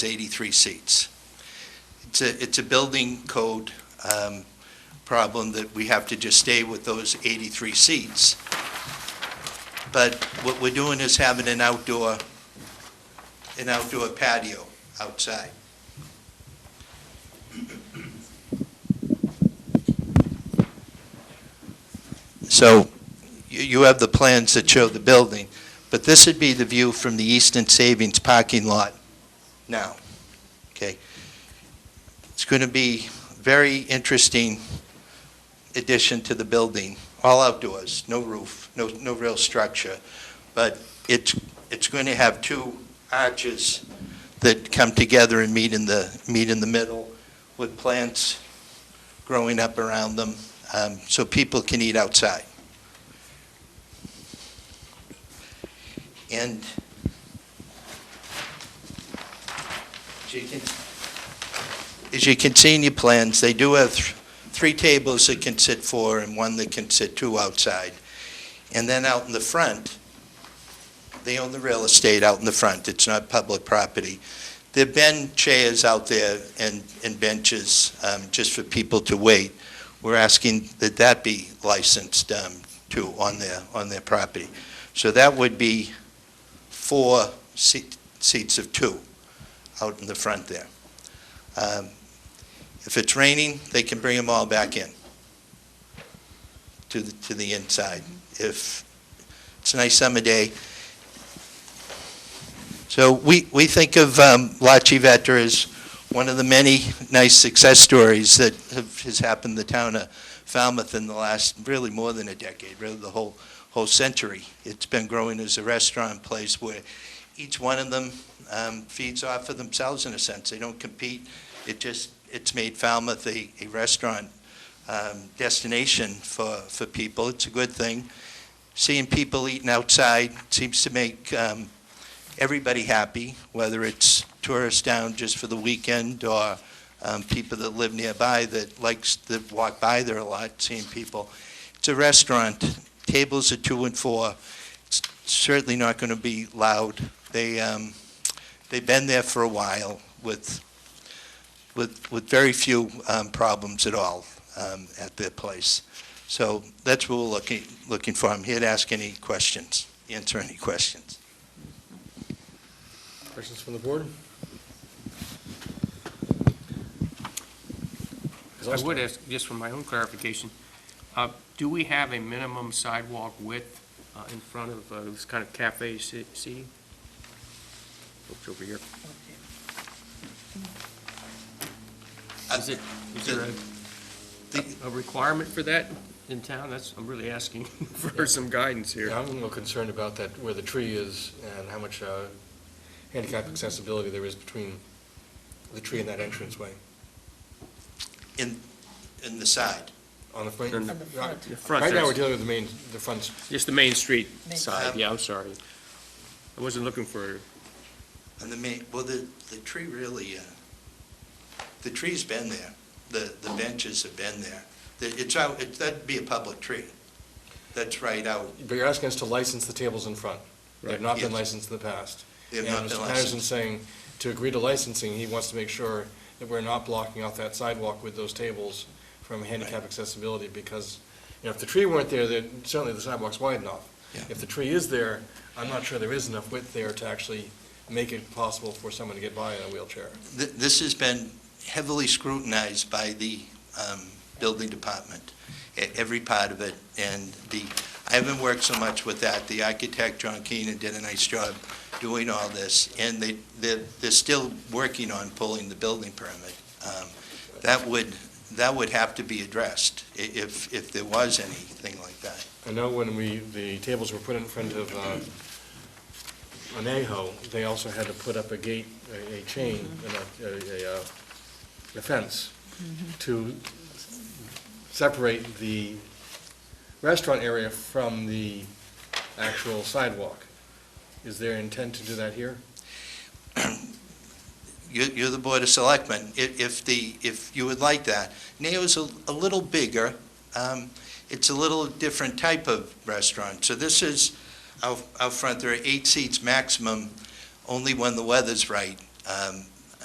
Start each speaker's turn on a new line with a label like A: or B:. A: to 83 seats. It's a, it's a building code um, problem that we have to just stay with those 83 seats. But what we're doing is having an outdoor, an outdoor patio outside. So you- you have the plans that show the building, but this would be the view from the Eastern Savings parking lot now, okay? It's going to be very interesting addition to the building, all outdoors, no roof, no, no real structure, but it's, it's going to have two arches that come together and meet in the, meet in the middle with plants growing up around them, um, so people can eat outside. And as you can, as you can see in your plans, they do have th- three tables that can sit four and one that can sit two outside. And then out in the front, they own the real estate out in the front. It's not public property. There've been chairs out there and, and benches, um, just for people to wait. We're asking that that be licensed, um, too, on their, on their property. So that would be four seat- seats of two out in the front there. Um, If it's raining, they can bring them all back in to, the- to the inside. If it's a nice summer day. So we, we think of um, La Chivetta as one of the many nice success stories that have, has happened to the town of Falmouth in the last, really more than a decade, really the whole, whole century. It's been growing as a restaurant place where each one of them um, feeds off of themselves in a sense. They don't compete. It just, it's made Falmouth a, a restaurant um, destination for, for people. It's a good thing. Seeing people eating outside seems to make um, everybody happy, whether it's tourists down just for the weekend or um, people that live nearby that likes, that walk by there a lot, seeing people. It's a restaurant. Tables are two and four. It's certainly not going to be loud. They, um, they've been there for a while with, with, with very few, um, problems at all, um, at their place. So that's what we're looking, looking for. I'm here to ask any questions, answer any questions.
B: Questions from the board?
C: I would ask, just for my own clarification, uh, do we have a minimum sidewalk width uh, in front of uh, this kind of cafe se- seating? Oops, over here. Is it, is there a- a requirement for that in town? That's, I'm really asking for some guidance here.
B: Yeah, I'm a little concerned about that, where the tree is and how much uh, handicap accessibility there is between the tree and that entranceway.
A: In the side.
B: On the front,
C: On
D: the front.
C: The front,
B: right now, we're
C: there's-
B: dealing with the main, the front,
C: just the Main Street
D: Main
C: side,
A: Street.
C: yeah, I'm sorry. I wasn't looking for,
A: And the main, well, the, the tree really, uh, the tree's been there. The, the benches have been there. The- It's out, it- that'd be a public tree. That's right out.
B: but you're asking us to license the tables in front. They've
C: Right.
B: not been
A: Yes.
B: licensed in the past.
A: They've not been
B: And Mr. Patterson's
A: licensed.
B: saying, to agree to licensing, he wants to make sure that we're not blocking off that sidewalk with those tables from handicap accessibility, because, you know, if the tree weren't there, then certainly the sidewalk's wide enough.
A: Yeah.
B: If the tree is there, I'm not sure there is enough width there to actually make it possible for someone to get by in a wheelchair.
A: Th- This has been heavily scrutinized by the um, building department, e- every part of it. And the, I haven't worked so much with that. The architect, John Keenan, did a nice job doing all this. And they, they're, they're still working on pulling the building permit. Um, That would, that would have to be addressed i- if, if there was anything like that.
B: I know when we, the tables were put in front of uh, Anejo, they also had to put up a gate, a- a chain, and a- a, a, uh, a fence to separate the restaurant area from the actual sidewalk. Is there intent to do that here?
A: You're, you're the Board of Selectmen, if, if the, if you would like that. Neo's a, a little bigger, um, it's a little different type of restaurant. So this is out, out front, there are eight seats maximum, only when the weather's right. Um,